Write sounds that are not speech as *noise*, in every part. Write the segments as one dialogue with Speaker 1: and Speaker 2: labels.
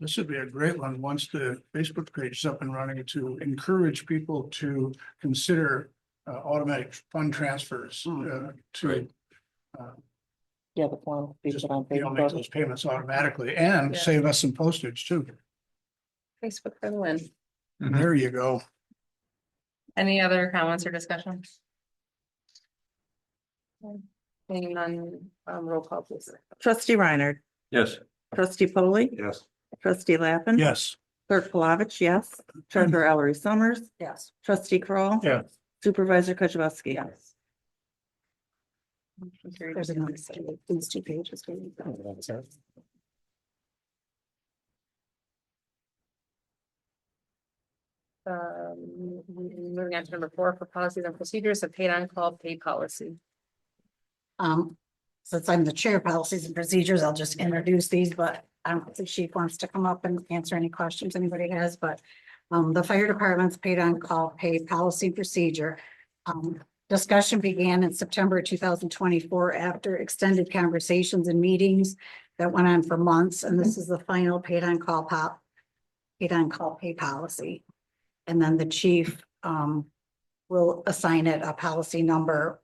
Speaker 1: This would be a great one, once the Facebook page is up and running, to encourage people to consider uh, automatic fund transfers uh, to
Speaker 2: Right.
Speaker 3: Yeah, the form.
Speaker 1: Just, you know, make those payments automatically and
Speaker 3: Yeah.
Speaker 1: save us some postage too.
Speaker 3: Facebook for the win.
Speaker 2: Mhm.
Speaker 1: There you go.
Speaker 3: Any other comments or discussion? Hanging on, um, roll call please.
Speaker 4: Trustee Reiner,
Speaker 2: Yes.
Speaker 4: trustee Foley,
Speaker 2: Yes.
Speaker 4: trustee Lappin.
Speaker 1: Yes.
Speaker 4: Clerk Palovich, yes. Treasurer Ellery Summers,
Speaker 3: Yes.
Speaker 4: trustee Kroll,
Speaker 1: Yeah.
Speaker 4: Supervisor Kujabaski. Yes.
Speaker 3: These two pages. Um, moving on to number four for policies and procedures, a paid on call pay policy.
Speaker 5: Um, since I'm the chair of policies and procedures, I'll just introduce these, but I don't think she wants to come up and answer any questions anybody has, but um, the fire department's paid on call pay policy and procedure. Um, discussion began in September two thousand twenty-four after extended conversations and meetings that went on for months, and this is the final paid on call pop, paid on call pay policy. And then the chief, um, will assign it a policy number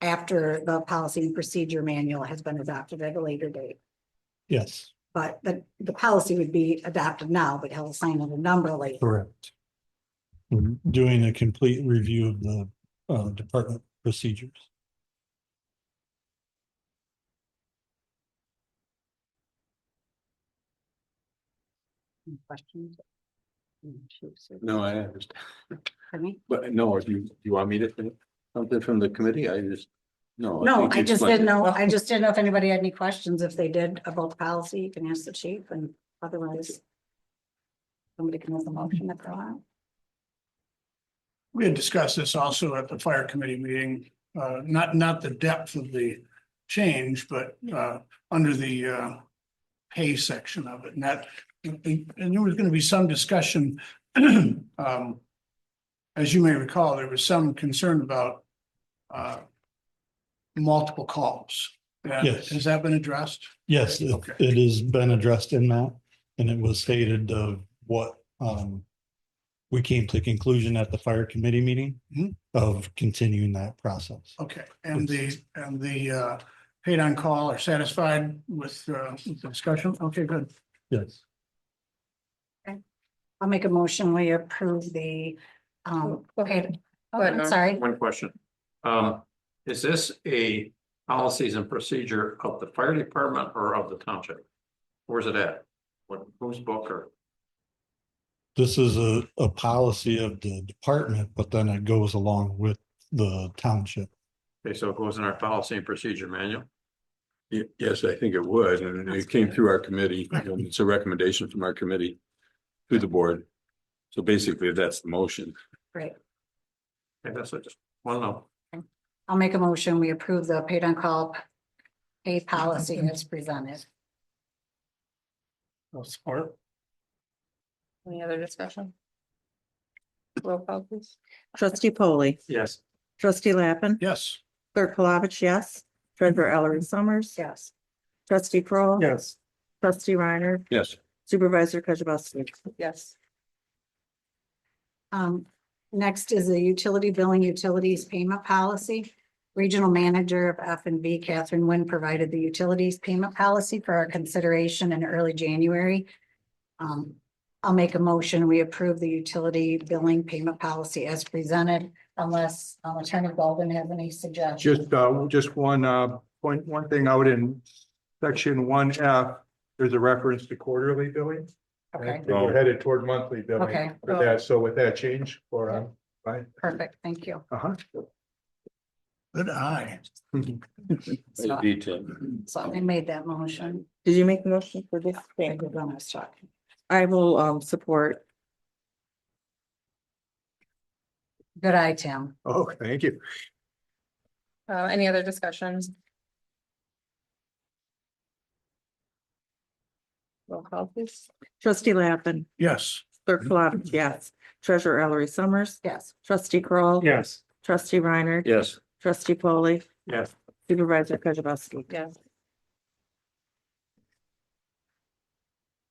Speaker 5: after the policy and procedure manual has been adopted at a later date.
Speaker 6: Yes,
Speaker 5: But the, the policy would be adopted now, but he'll assign it a number later.
Speaker 6: correct. We're doing a complete review of the uh department procedures.
Speaker 5: Any Questions? Mm, shoot, sir.
Speaker 2: No, I understand.
Speaker 5: Pardon me?
Speaker 2: But no, if you, you want me to, think something from the committee, I just, no.
Speaker 5: No,
Speaker 2: think you
Speaker 5: I just
Speaker 2: explained
Speaker 5: didn't
Speaker 2: it.
Speaker 5: know, I just didn't know if anybody had any questions. If they did about the policy, you can ask the chief and otherwise somebody can make a motion if they want.
Speaker 1: We had discussed this also at the fire committee meeting, uh, not, not the depth of the change, but, uh, under the, uh, pay section of it, and that, and there was gonna be some discussion. *clears throat* um, As you may recall, there was some concern about, uh, multiple calls. And
Speaker 6: Yes.
Speaker 1: Has that been addressed?
Speaker 6: Yes, it
Speaker 1: Okay.
Speaker 6: it has been addressed in that, and it was stated of what um. We came to conclusion at the fire committee meeting
Speaker 1: Mhm.
Speaker 6: of continuing that process.
Speaker 1: Okay, and the, and the, uh, paid on call are satisfied with, uh, with the discussion? Okay, good.
Speaker 6: Yes.
Speaker 5: I'll make a motion. We approve the, um,
Speaker 3: Go
Speaker 5: paid,
Speaker 3: ahead.
Speaker 5: oh,
Speaker 3: Go ahead,
Speaker 5: I'm
Speaker 3: Norm.
Speaker 5: sorry.
Speaker 7: One question. Um, is this a policies and procedure of the fire department or of the township? Where's it at? What, whose book or?
Speaker 6: This is a a policy of the department, but then it goes along with the township.
Speaker 7: Okay, so it goes in our policy and procedure manual.
Speaker 2: Ye- Yes, I think it was, and it came through our committee, and it's a recommendation from our committee to the board. So basically, that's the motion.
Speaker 7: Okay, that's what I just, want to know.
Speaker 5: I'll make a motion, we approve the paid on call pay policy as presented.
Speaker 1: I'll support.
Speaker 3: Any other discussion? Roll call please.
Speaker 4: Trustee Polly,
Speaker 7: Yes.
Speaker 4: trustee Lappin,
Speaker 1: Yes.
Speaker 4: clerk Palovich, yes. Treasurer Ellery Summers.
Speaker 5: Yes.
Speaker 4: Trustee Kroll.
Speaker 1: Yes.
Speaker 4: Trustee Reiner,
Speaker 2: Yes.
Speaker 4: supervisor Kujabaski.
Speaker 3: Yes.
Speaker 5: Um, next is the utility billing utilities payment policy. Regional Manager of F and B Catherine Nguyen provided the utilities payment policy for our consideration in early January. Um, I'll make a motion, we approve the utility billing payment policy as presented unless um, Attorney Golden has any suggestions.
Speaker 8: Just, uh, just one, uh, point, one thing out in section one F, there's a reference to quarterly billing. I
Speaker 5: Okay,
Speaker 8: think We're headed toward monthly billing
Speaker 5: Okay.
Speaker 8: with that, so with that change, or, um, right?
Speaker 5: perfect, thank you.
Speaker 8: Uh-huh.
Speaker 1: Good eye.
Speaker 5: So-
Speaker 2: Detail.
Speaker 5: So I made that motion.
Speaker 4: Did you make the motion for this?
Speaker 5: I
Speaker 4: Thank
Speaker 5: did
Speaker 4: you.
Speaker 5: when I was talking.
Speaker 4: I will um support.
Speaker 5: Good eye, Tim.
Speaker 8: *laughs* Oh, thank you.
Speaker 3: Uh, any other discussions? Roll call please.
Speaker 4: Trustee Lappin,
Speaker 1: Yes.
Speaker 4: clerk Palovich, yes. Treasurer Ellery Summers,
Speaker 5: Yes.
Speaker 4: trustee Kroll.
Speaker 1: Yes.
Speaker 4: Trustee Reiner.
Speaker 2: Yes.
Speaker 4: Trustee Polly,
Speaker 7: Yes.
Speaker 4: supervisor Kujabaski.
Speaker 3: Yes.